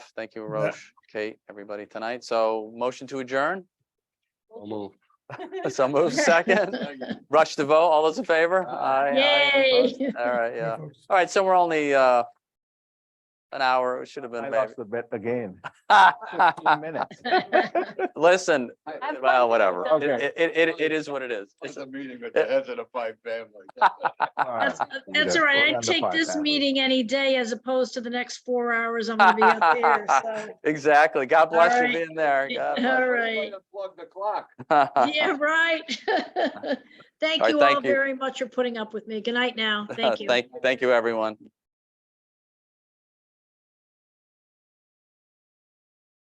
much. Thank you, Roche, Kate, everybody tonight. So motion to adjourn. I'll move. So move second. Rush to vote. All those in favor? Aye. aye, any opposed? Yay. All right, yeah. All right, so we're only uh an hour. It should have I been. lost the bet again. maybe. 15 minutes. Listen, Have fun well, with whatever. it. Okay. It, it, it, it is what it is. It's- It's a meeting with the heads of the five families. All right. That's uh, that's all right. I'd take this meeting any day as opposed to the next four hours I'm gonna be up here, so. Exactly. God bless you right. being there. God bless. All right. Plug the clock. Yeah, right. Thank right, you thank all you. very much for putting up with me. Good night now. Thank you. Thank, thank you, everyone.